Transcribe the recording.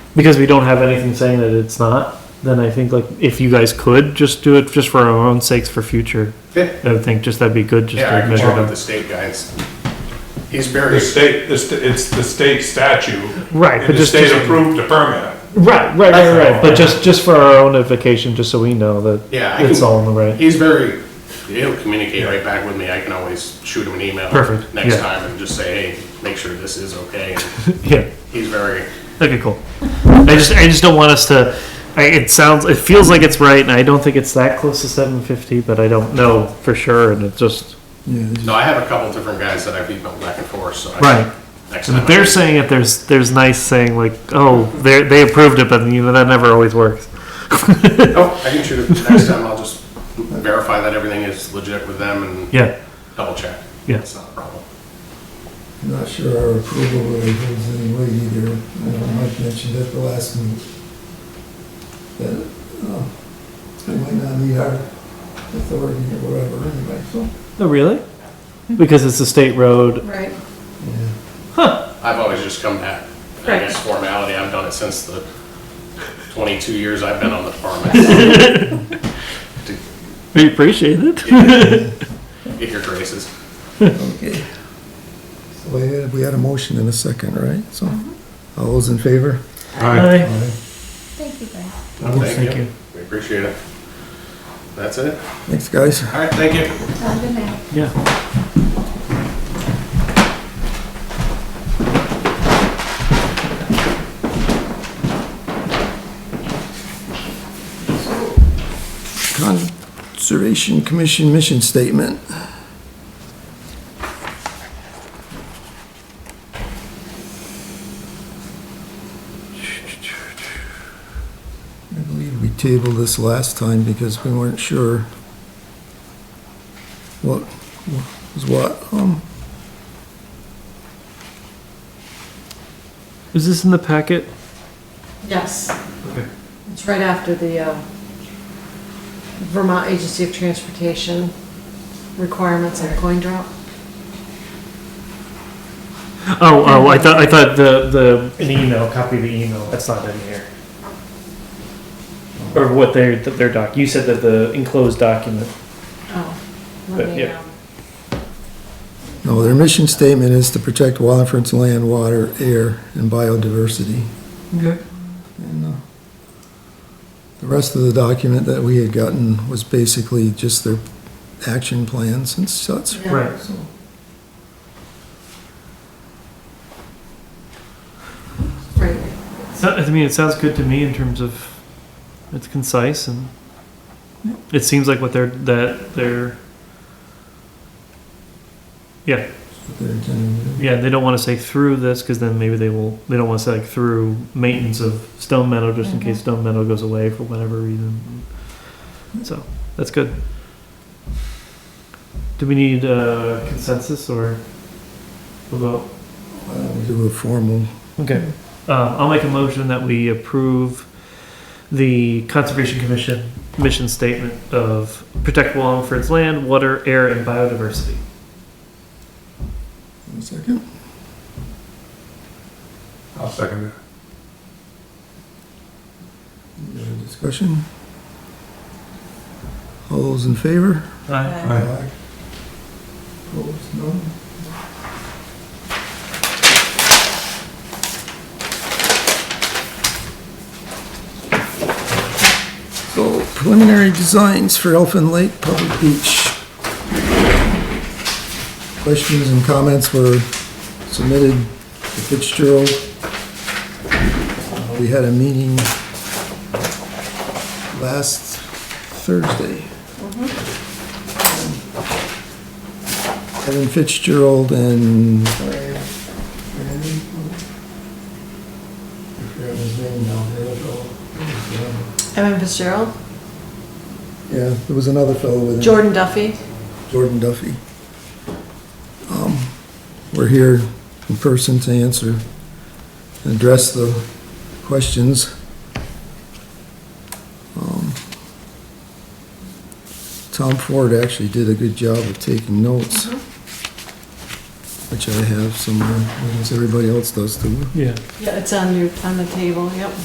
because we don't have anything saying that it's not, then I think like if you guys could just do it just for our own sakes for future, Yeah, I would think just that'd be good just yeah, to I can measure talk it with up. the state guys. He's The very, state, the sta- it's the state statute. Right, but And the just- state just- approved the permit. Right, right, right, right. But just just for our own edification, just so we know that yeah, I it's all in can, the right. he's very, he'll communicate right back with me. I can always shoot him an email. Perfect, Next yeah. time and just say, hey, make sure this is okay. And Yeah. He's very, Okay, cool. I just I just don't want us to. I, it sounds it feels like it's right, and I don't think it's that close to 750, but I don't know for sure. And it's just no, I have a couple different guys that I've emailed back and forth, so. I- Right. Next time. but I- they're saying it. There's there's nice saying like oh they they approved it, but you know that never always works. Oh, I can shoot it. Next time I'll just verify that everything is legit with them and Yeah, double check. Yeah. It's not a problem. I'm not sure our approval really holds any weight either. I know Mike mentioned at the last meeting that uh, we might not need our authority or whatever anyway, so. oh really? Because it's a state road. Right. yeah. I've always just come back. I Right. guess formality, I've done it since the 22 years I've been on the department. We appreciate it. Get your graces. Okay. So we had, we had a motion in a second, right? So, all those in favor? Hi. Thank you, guys. Thank you. We appreciate it. That's it. Thanks, guys. All right, thank you. Have a good night. Yeah. Conservation Commission mission statement. I believe we tabled this last time because we weren't sure what what was what. Um, Is this in the packet? Yes, Okay. it's right after the uh, Vermont Agency of Transportation requirements on coin drop. Oh, oh, I thought I thought the the an email copy of the email. That's not in here. Or what their their doc. You said that the enclosed document. Oh, But, let me, Uh, yeah. um, No, their mission statement is to protect Wallingford's land, water, air, and biodiversity. Okay. And, uh, The rest of the document that we had gotten was basically just their action plans and such. yeah. Right. So, Right, So- I mean, it sounds good to me in terms of it's concise and it seems like what they're that they're. Yeah, that's what they're intending to do. yeah. They don't want to say through this because then maybe they will. They don't want to say like through maintenance of Stone Meadow just in case Stone Meadow goes away for whatever reason. So that's good. Do we need uh, consensus or a vote? Uh, we Do a formal, Okay. Uh, I'll make a motion that we approve the Conservation Commission mission statement of protect Wallingford's land, water, air, and biodiversity. one second. I'll second it. Any other Discussion. All those in favor? Aye. Aye. Opposed, none? So preliminary designs for Elfin Lake Public Beach. Questions and comments were submitted to Fitzgerald. Uh, We had a meeting last Thursday. Kevin Fitzgerald and. I forgot his name now, the other fellow. Evan Fitzgerald, Yeah, there was another fellow with him. Jordan Duffy, Jordan Duffy. Um, We're here in person to answer and address the questions. Um, Tom Ford actually did a good job of taking notes, which I have somewhere, as everybody else does too. Yeah. yeah, it's on your, on the table, yep.